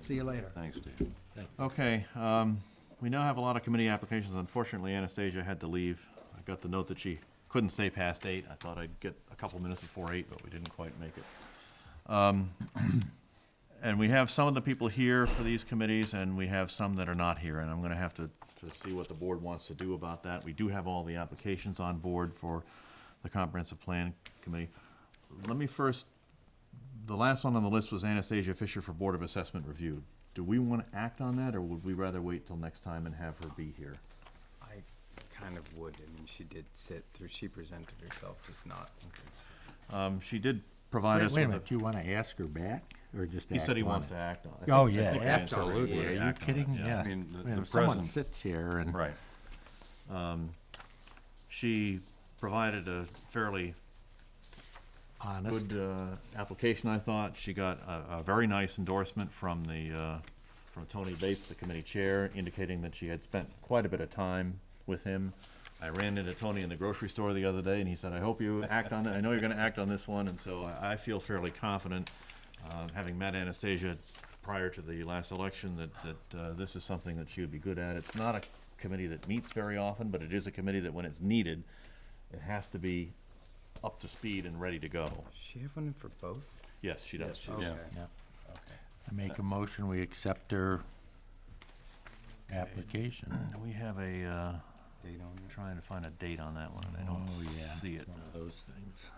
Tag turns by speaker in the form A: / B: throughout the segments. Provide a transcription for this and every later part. A: See you later.
B: Thanks, Dave.
C: Okay, um, we now have a lot of committee applications. Unfortunately, Anastasia had to leave. I got the note that she couldn't stay past eight. I thought I'd get a couple minutes before eight, but we didn't quite make it. Um, And we have some of the people here for these committees, and we have some that are not here, and I'm gonna have to, to see what the board wants to do about that. We do have all the applications on board for the Comprehensive Plan Committee. Let me first the last one on the list was Anastasia Fisher for Board of Assessment Review. Do we want to act on that, or would we rather wait till next time and have her be here?
D: I kind of would. I mean, she did sit through, she presented herself, just not.
C: Um, she did provide
E: Wait
C: us
E: wait a
C: with a.
E: minute, do you want to ask her back, or just
C: He
E: act
C: said he
E: on
C: wants
E: it?
C: to act on it.
E: Oh,
C: I think- I
E: yeah,
C: think we
E: act on it.
C: absolutely
E: Are you
C: act on it,
E: kidding?
C: yeah.
E: Yes.
B: I mean, the-
E: Man,
B: the
E: if Someone
B: present-
E: sits here and.
C: Right. Um, she provided a fairly
E: Honest.
C: good uh, application, I thought. She got a, a very nice endorsement from the, uh, from Tony Bates, the committee chair, indicating that she had spent quite a bit of time with him. I ran into Tony in the grocery store the other day, and he said, "I hope you act on it. I know you're going to act on this one." And so I, I feel fairly confident, uh, having met Anastasia prior to the last election, that that uh, this is something that she would be good at. It's not a committee that meets very often, but it is a committee that, when it's needed, it has to be up to speed and ready to go.
D: Does she have one in for both?
C: Yes, she does.
D: Okay.
B: Yeah.
E: Yeah. I make a motion, we accept her application.
C: We have a, uh,
D: Date on it.
C: trying to find a date on that one, and I don't
D: Oh,
C: see it.
E: Oh, One of those things.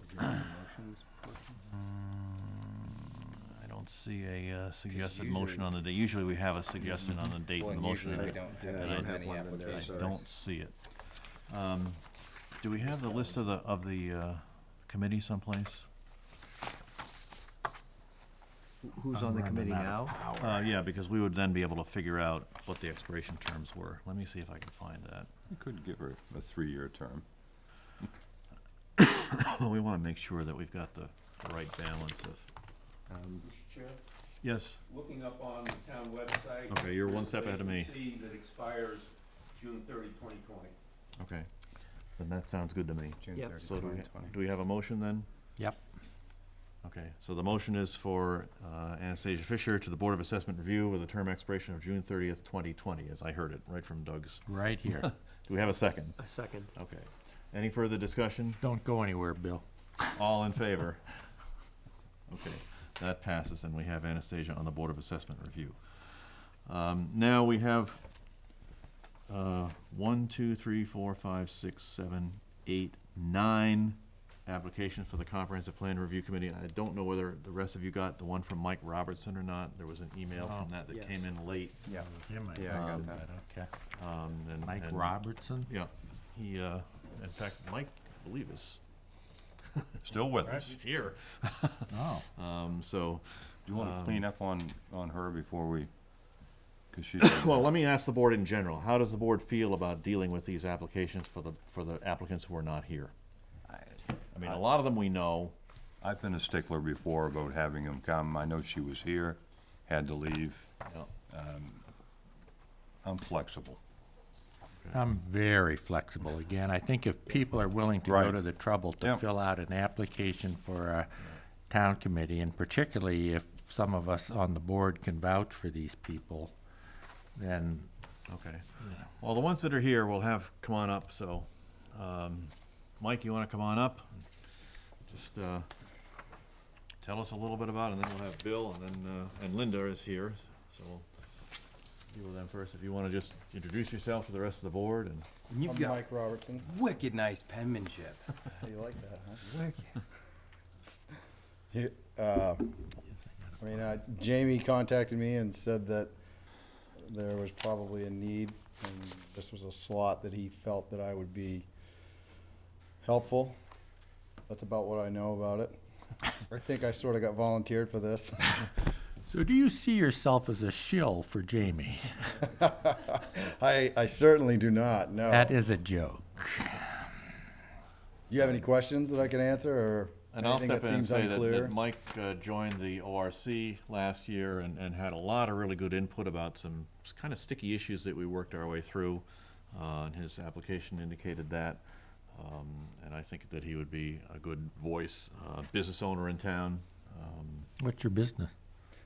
D: Was there any motions? portion?
C: I don't see a uh, suggested
D: usually-
C: motion on the date. Usually we have a suggestion on the date
D: Well,
C: and the
D: and
C: motion.
D: usually
C: and
D: we
C: it-
D: don't do
C: and I
D: that
C: don't
D: many
B: have one in there,
C: I
D: applications.
C: don't see it. Um, Do we have the list of the, of the uh, committee someplace?
A: Who's on the committee now?
C: Uh, yeah, because we would then be able to figure out what the expiration terms were. Let me see if I can find that.
B: You could give her a three-year term.
C: Well, we want to make sure that we've got the the right balance of,
F: Mr. Chair,
C: yes,
F: looking up on the town website.
C: Okay, you're one step
F: there's
C: ahead
F: a
C: of me.
F: vacancy that expires June 30, 2020.
C: okay. Then that sounds good to me.
D: June
A: Yep.
D: 30,
C: So do we,
D: 2020.
C: do we have a motion then?
E: Yep.
C: Okay, so the motion is for uh, Anastasia Fisher to the Board of Assessment Review with a term expiration of June thirtieth, twenty twenty, as I heard it, right from Doug's.
E: Right here.
C: Do we have a second?
A: A second.
C: Okay. Any further discussion?
E: Don't go anywhere, Bill.
C: All in favor? Okay, that passes, and we have Anastasia on the Board of Assessment Review. Um, Now, we have uh, one, two, three, four, five, six, seven, eight, nine applications for the Comprehensive Plan Review Committee. I don't know whether the rest of you got the one from Mike Robertson or not. There was an email from that that came in late.
D: Yeah,
E: Jim, I
D: Yeah, I got
E: um,
D: that.
E: Okay.
C: um, and-
E: Mike
C: and-
E: Robertson?
C: Yeah, he, uh, in fact, Mike, I believe is,
B: Still with us.
C: he's here.
E: Oh,
C: Um, So,
B: Do you want
C: Um,
B: to clean up on, on her before we, because she's.
C: Well, let me ask the board in general, how does the board feel about dealing with these applications for the, for the applicants who are not here? I mean, a lot of them we know,
B: I've been a stickler before about having them come. I know she was here, had to leave. Um,
C: Yeah.
B: I'm flexible.
E: I'm very flexible. Again, I think if people are willing to go
B: Right.
E: to the trouble to
B: Yeah.
E: fill out an application for a town committee, and particularly if some of us on the board can vouch for these people, then,
C: Okay. Well, the ones that are here will have, come on up, so, um, Mike, you wanna come on up? Just, uh, tell us a little bit about, it, and then we'll have Bill, and then, uh, and Linda is here, so we'll deal with them first, if you wanna just introduce yourself to the rest of the board, and
D: And
A: Um,
D: you've
G: I'm
D: got
G: Mike Robertson.
D: wicked nice penmanship.
G: You like that, huh?
D: Wicked.
G: uh, I mean, uh, Jamie contacted me and said that there was probably a need, and this was a slot that he felt that I would be helpful. That's about what I know about it. I think I sort of got volunteered for this.
E: so do you see yourself as a shill for Jamie?
G: I, I certainly do not. No.
E: That is a joke.
G: Do you have any questions that I can answer, or
C: And I'll
G: anything
C: step
G: that
C: in and
G: seems
C: say that,
G: unclear?
C: that Mike uh, joined the ORC last year and, and had a lot of really good input about some kind of sticky issues that we worked our way through. Uh, and his application indicated that. Um, and I think that he would be a good voice, uh, business owner in town. Um,
E: What's your business?